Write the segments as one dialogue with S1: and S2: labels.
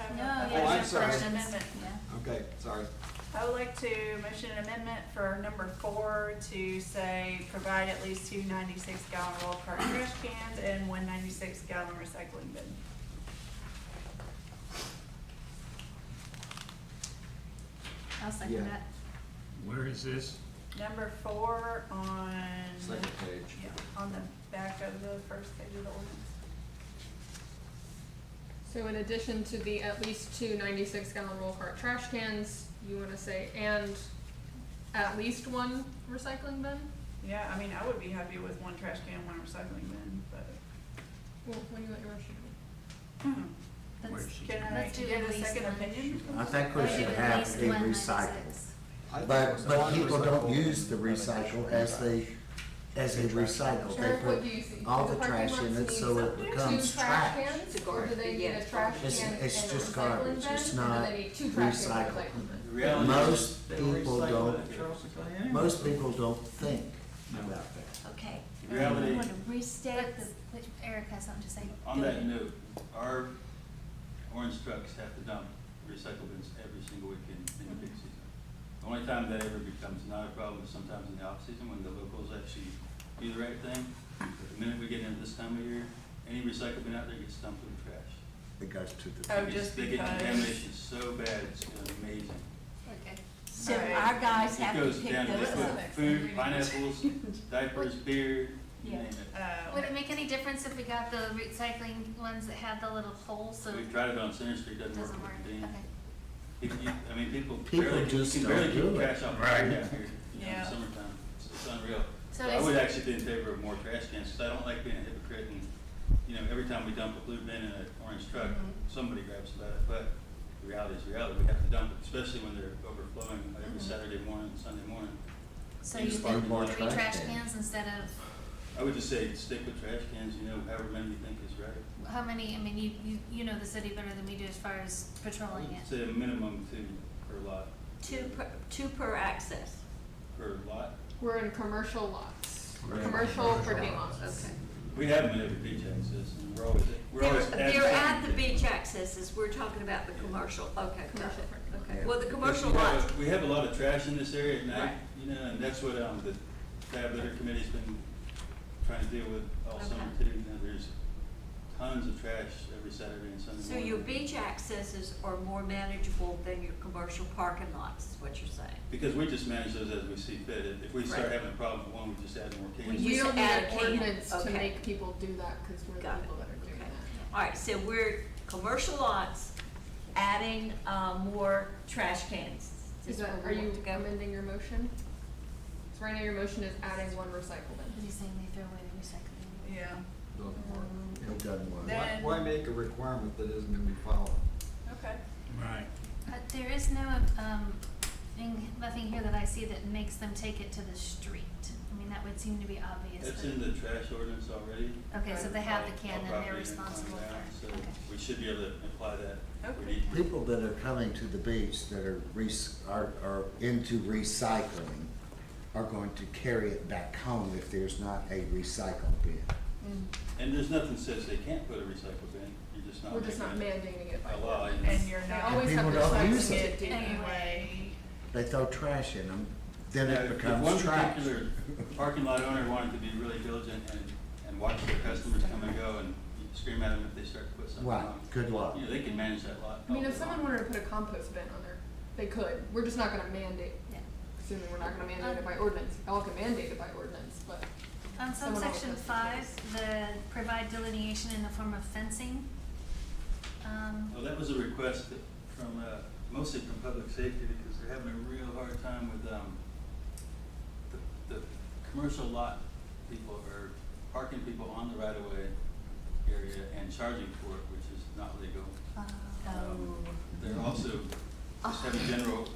S1: Oh,
S2: Oh, sorry.
S1: First amendment.
S2: Okay, sorry.
S1: I would like to motion an amendment for number four to say, provide at least two ninety-six gallon roll cart trash cans and one ninety-six gallon recycling bin.
S3: I'll
S2: Yeah.
S3: second that.
S4: Where is this?
S1: Number four on,
S2: Second page.
S1: yeah, on the back of the first page of the ordinance.
S5: So in addition to the at least two 96 gallon roll cart trash cans, you wanna say, and at least one recycling bin?
S1: Yeah, I mean, I would be happy with one trash can, one recycling bin, but
S5: Well, what do you want your motion to
S2: Hmm.
S4: Where is
S3: Let's-
S4: she?
S1: can I
S3: Let's do
S1: get
S3: at
S1: a
S3: least
S1: second
S3: one.
S1: opinion?
S6: I think we
S3: Let's do
S6: should
S3: at
S6: have
S3: least
S6: a
S3: one
S6: recycle.
S3: 96.
S2: I think
S6: But,
S2: it's
S6: but
S2: on
S6: people don't
S2: recycle.
S6: use the recycle as they, as they recycle.
S5: be? Or
S6: They
S5: what do you see?
S6: put all
S5: Do
S6: the
S5: parking
S6: trash in
S5: lots
S6: it
S5: need
S6: so it
S5: some-
S6: becomes
S5: Two trash
S6: trash.
S5: cans, or do they need
S7: Yeah.
S5: a trash
S6: It's-
S5: can and a
S6: it's just
S5: recycling
S6: garbage.
S5: bin,
S6: It's
S5: or
S6: not
S5: do they need two trash cans and a
S6: recycled.
S5: recycling bin?
S2: The reality is
S6: Most
S2: they
S6: people
S2: recycle
S6: don't-
S2: at Charleston County anyway.
S6: Most people don't think
S2: No.
S6: about that.
S3: Okay.
S2: The reality-
S3: You wanna restate the, Let's- which Eric has something to say.
S8: On that note, our orange trucks have to dump recycle bins every single weekend in the peak season. The only time that ever becomes not a problem is sometimes in the off-season when the locals actually do the right thing. But The minute we get into this time of year, any recycle bin out there gets dumped in the trash.
S6: It goes to
S1: Oh,
S6: the,
S8: They get-
S1: just
S8: They get
S1: because.
S8: contamination so bad, it's amazing.
S3: Okay.
S7: So
S1: Alright.
S7: our guys
S8: It
S7: have to
S8: goes
S7: pick
S8: down, they
S7: those up.
S8: put food, pineapples, diapers, beer, you
S3: Yeah.
S8: name it.
S1: Uh,
S3: Would it make any difference if we got the recycling ones that had the little hole so
S8: We've
S3: it
S8: tried it on Center Street, doesn't work
S3: doesn't work?
S8: with the
S3: Okay.
S8: bin. If you, I mean, people
S6: People
S8: barely, you
S6: just
S8: can barely
S6: don't do
S8: keep
S6: it.
S8: trash off the
S4: Right.
S8: ground out here, you know, in the
S1: Yeah.
S8: summertime, it's, it's unreal.
S3: So
S8: But I would
S3: it's,
S8: actually be in favor of more trash cans, 'cause I don't like being a hypocrite and, you know, every time we dump a blue bin in an orange truck,
S1: Mhm.
S8: somebody grabs about it, but the reality is reality, we have to dump it, especially when they're overflowing every
S1: Mhm.
S8: Saturday morning, Sunday morning.
S3: so
S8: you
S3: you
S8: just
S3: think
S8: need more
S3: three
S6: trash
S3: trash
S6: cans.
S3: cans instead of,
S8: I would just say stick with trash cans, you know, however many you think is right.
S3: how many, I mean, you, you, you know the city better than we do as far as
S8: I
S3: patrolling
S8: would
S3: it.
S8: Say a minimum two per lot.
S7: Two per, two per access.
S8: Per lot,
S5: We're in commercial lots,
S6: Right.
S5: commercial
S6: Commercial
S5: parking
S6: lots.
S5: lots.
S8: we have them at every beach access, and we're always, we're
S7: They're,
S8: always.
S7: they're at the
S8: beach.
S7: beach accesses, we're talking about the commercial, okay, got
S5: Commercial parking
S6: lot.
S7: it, okay. Well, the commercial
S8: We have a-
S7: lots,
S8: We have a lot of trash in this area at night,
S7: Right.
S8: you know, and that's what, um, the tab litter committee's been trying to deal with all summer
S7: Okay.
S8: too. You know, there's tons of trash every Saturday and Sunday
S7: so
S8: morning.
S7: your beach accesses are more manageable than your commercial parking lots, is what you're saying.
S8: Because we just manage those as we see fit. If if we start
S7: Right.
S8: having a problem with one, we just add more
S7: We
S8: cans.
S5: We
S7: used
S5: don't
S7: to
S5: need
S7: add a
S5: an
S7: can.
S5: ordinance to
S7: Okay.
S5: make people do that, cause we're the
S7: Got it.
S5: people that are doing
S7: Okay.
S5: that.
S7: All
S3: Yeah.
S7: right, so we're, commercial lots, adding, uh, more trash cans.
S5: Is
S7: where
S5: that,
S7: we
S5: are you
S7: want to go.
S5: amending your motion? So right now your motion is adding one recycle bin.
S3: What are you saying, they throw away the recycling?
S1: yeah,
S2: Doesn't work.
S6: it doesn't work.
S1: That-
S2: Why, why make a requirement that isn't gonna be followed?
S1: okay.
S4: Right.
S3: But there is no, um, thing, nothing here that I see that makes them take it to the street. I mean, that would seem to be obvious.
S8: That's
S3: but-
S8: in the trash ordinance already.
S3: Okay, so they have the
S8: All-
S3: can
S8: all
S3: and they're
S8: property
S3: responsible
S8: on that,
S3: for it.
S8: So
S3: Okay.
S8: we should be able to apply that. if we
S1: Okay.
S8: need to.
S6: People that are coming to the beach that are rec, are, are into recycling are going to carry it back home if there's not a recycle bin.
S8: And there's nothing says they can't put a recycle bin. You're just not.
S5: We're just not
S8: making it
S5: mandating it by
S8: A law.
S5: law.
S8: you know.
S1: And you're
S5: They
S1: not
S5: always have
S6: people
S5: the
S6: don't
S5: choice
S6: use
S5: to
S6: it.
S5: do that.
S1: anyway.
S6: They throw trash in them, then
S8: Yeah,
S6: it
S8: if-
S6: becomes trash.
S8: If one particular parking lot owner wanted to be really diligent and, and watch their customers come and go and scream at them if they start to put something
S6: Right,
S8: on,
S6: good luck.
S8: you know, they can manage that lot.
S5: I mean,
S8: all
S5: if
S8: day
S5: someone
S8: long.
S5: wanted to put a compost bin on there, they could. We're just not gonna mandate,
S3: Yeah.
S5: assuming we're not gonna mandate it by ordinance. Y'all can mandate it by ordinance, but
S3: On
S5: Someone else
S3: subsection
S5: has the
S3: five, the provide delineation in the form of fencing. Um,
S8: Well, that was a request that- from, uh, mostly from public safety because they're having a real hard time with, um, the, the commercial lot people are parking people on the right of way area and charging for it, which is not legal.
S3: uh,
S8: Um, They're also just having general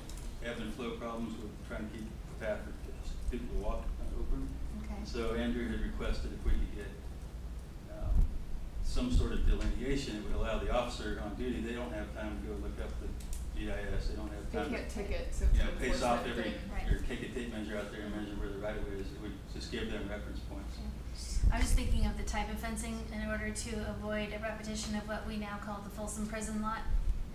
S8: ebb and flow problems with trying to keep the path for people to walk uh, open.
S3: okay.
S8: So Andrew had requested if we could get um, some sort of delineation, it would allow the officer on duty, they don't have time to go look up the GIS, they don't have time
S5: they
S8: to
S5: can't ticket, so it's
S8: you
S5: an
S8: know, pace off
S5: enforcement
S8: every,
S5: thing.
S3: Right.
S8: or take a tape measure out there and measure where the right of way is, it would just give them reference points.
S3: I was thinking of the type of fencing in order to avoid a repetition of what we now call the Folsom Prison Lot,